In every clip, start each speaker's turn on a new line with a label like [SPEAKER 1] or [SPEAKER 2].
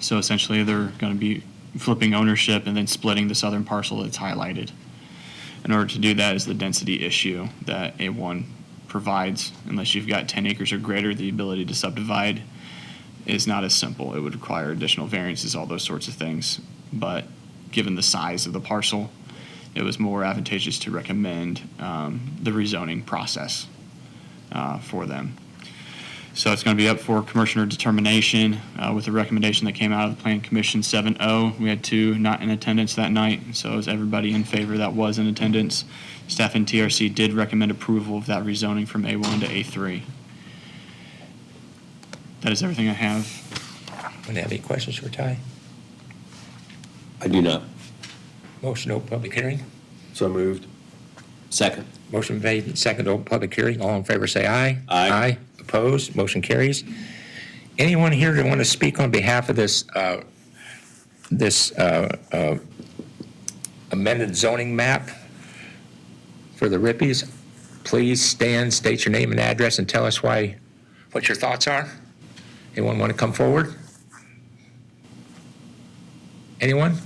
[SPEAKER 1] So essentially, they're going to be flipping ownership and then splitting the southern parcel that's highlighted. In order to do that is the density issue that A1 provides. Unless you've got 10 acres or greater, the ability to subdivide is not as simple. It would require additional variances, all those sorts of things. But given the size of the parcel, it was more advantageous to recommend um, the rezoning process uh, for them. So it's going to be up for commissioner determination uh, with the recommendation that came out of the Plan Commission 7-0. We had two not in attendance that night, so is everybody in favor that was in attendance? Staff and TRC did recommend approval of that rezoning from A1 to A3. That is everything I have.
[SPEAKER 2] Would you have any questions for Ty?
[SPEAKER 3] I do not.
[SPEAKER 2] Motion to open public hearing.
[SPEAKER 3] So moved. Second.
[SPEAKER 2] Motion made and seconded to open public hearing. All in favor, say aye.
[SPEAKER 3] Aye.
[SPEAKER 2] Aye. Opposed? Motion carries. Anyone here that want to speak on behalf of this, uh, this uh, uh, amended zoning map for the Rippies? Please stand, state your name and address, and tell us why, what your thoughts are. Anyone want to come forward? Anyone?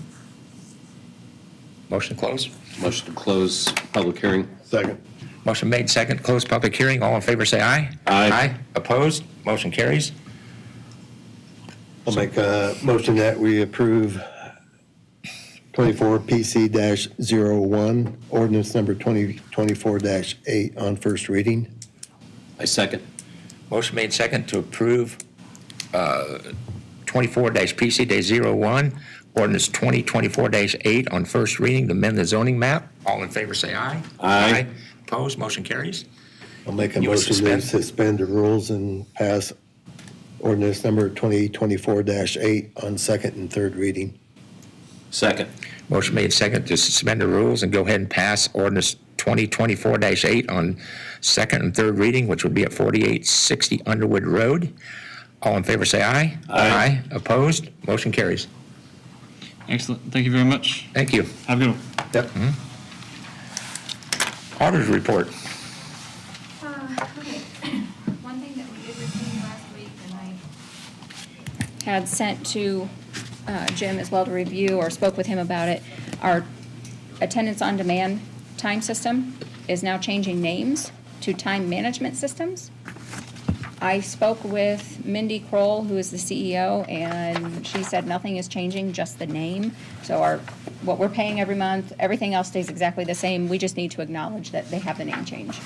[SPEAKER 2] Motion to close.
[SPEAKER 3] Motion to close public hearing.
[SPEAKER 4] Second.
[SPEAKER 2] Motion made second, close public hearing. All in favor, say aye.
[SPEAKER 3] Aye.
[SPEAKER 2] Opposed? Motion carries.
[SPEAKER 4] I'll make a motion that we approve 24 PC-01, ordinance number 2024-8 on first reading.
[SPEAKER 3] I second.
[SPEAKER 2] Motion made second to approve uh, 24-PC-01, ordinance 2024-8 on first reading to amend the zoning map. All in favor, say aye.
[SPEAKER 3] Aye.
[SPEAKER 2] Opposed? Motion carries.
[SPEAKER 4] I'll make a
[SPEAKER 2] You wanna
[SPEAKER 4] motion to
[SPEAKER 2] suspend?
[SPEAKER 4] suspend the rules and pass ordinance number 2024-8 on second and third reading.
[SPEAKER 3] Second.
[SPEAKER 2] Motion made second to suspend the rules and go ahead and pass ordinance 2024-8 on second and third reading, which would be at 4860 Underwood Road. All in favor, say aye. Aye. Opposed? Motion carries.
[SPEAKER 1] Excellent. Thank you very much.
[SPEAKER 2] Thank you.
[SPEAKER 1] Have a good one.
[SPEAKER 4] Yep.
[SPEAKER 2] Mm-hmm. Auditor's report.
[SPEAKER 5] Uh, okay. One thing that we did receive last week, and I had sent to uh, Jim as well to review, or spoke with him about it, our attendance on demand time system is now changing names to time management systems. I spoke with Mindy Kroll, who is the CEO, and she said nothing is changing, just the name. So our, what we're paying every month, everything else stays exactly the same. We just need to acknowledge that they have the name change.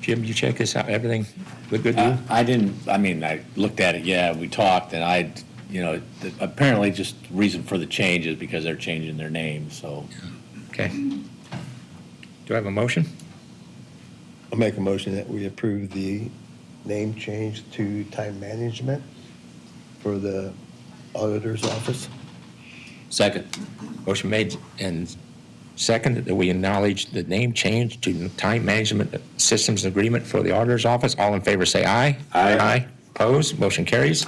[SPEAKER 2] Jim, you check this out, everything look good
[SPEAKER 6] Uh,
[SPEAKER 2] to
[SPEAKER 6] I didn't, I mean, I looked at it, yeah, we talked, and I, you know, th- apparently just the reason for the change is because they're changing their name, so.
[SPEAKER 2] you? Okay. Do I have a motion?
[SPEAKER 4] I'll make a motion that we approve the name change to time management for the auditor's office.
[SPEAKER 3] Second.
[SPEAKER 2] Motion made and seconded that we acknowledge the name change to Time Management Systems Agreement for the Auditor's Office. All in favor, say aye.
[SPEAKER 3] Aye.
[SPEAKER 2] Aye. Opposed? Motion carries.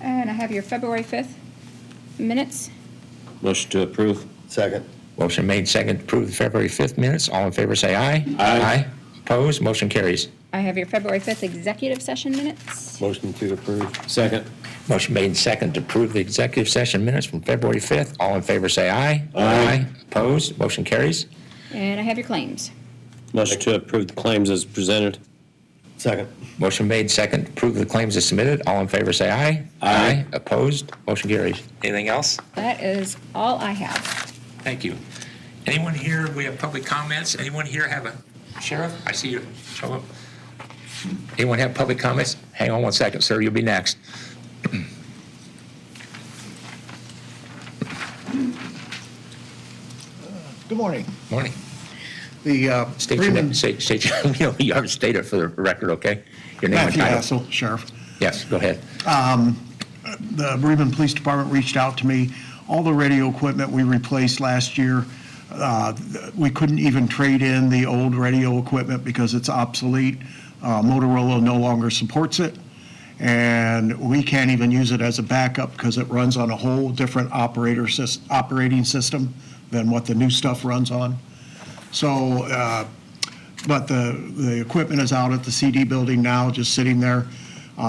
[SPEAKER 5] And I have your February 5th minutes.
[SPEAKER 3] Motion to approve.
[SPEAKER 4] Second.
[SPEAKER 2] Motion made second to approve the February 5th minutes. All in favor, say aye.
[SPEAKER 3] Aye.
[SPEAKER 2] Opposed? Motion carries.
[SPEAKER 5] I have your February 5th executive session minutes.
[SPEAKER 4] Motion to approve.
[SPEAKER 3] Second.
[SPEAKER 2] Motion made and second to approve the executive session minutes from February 5th. All in favor, say aye. Aye. Opposed? Motion carries.
[SPEAKER 5] And I have your claims.
[SPEAKER 3] Motion to approve the claims as presented.
[SPEAKER 4] Second.
[SPEAKER 2] Motion made second to approve the claims as submitted. All in favor, say aye.
[SPEAKER 3] Aye.
[SPEAKER 2] Opposed? Motion carries. Anything else?
[SPEAKER 5] That is all I have.
[SPEAKER 2] Thank you. Anyone here, we have public comments. Anyone here have a, Sheriff, I see you. Show up. Anyone have public comments? Hang on one second, sir, you'll be next.
[SPEAKER 7] Good morning.
[SPEAKER 2] Morning.
[SPEAKER 7] The uh,
[SPEAKER 2] State your name,
[SPEAKER 7] Freeman,
[SPEAKER 2] state, state, your- you know, you have to state it for the record, okay? Your name and
[SPEAKER 7] Matthew
[SPEAKER 2] title.
[SPEAKER 7] Hassel, Sheriff.
[SPEAKER 2] Yes, go ahead.
[SPEAKER 7] The Bremen Police Department reached out to me. All the radio equipment we replaced last year, uh, th- we couldn't even trade in the old radio equipment because it's obsolete. Uh, Motorola no longer supports it, and we can't even use it as a backup because it runs on a whole different operator, sys- operating system than what the new stuff runs on. So uh, But the, the equipment is out at the CD building now, just sitting there.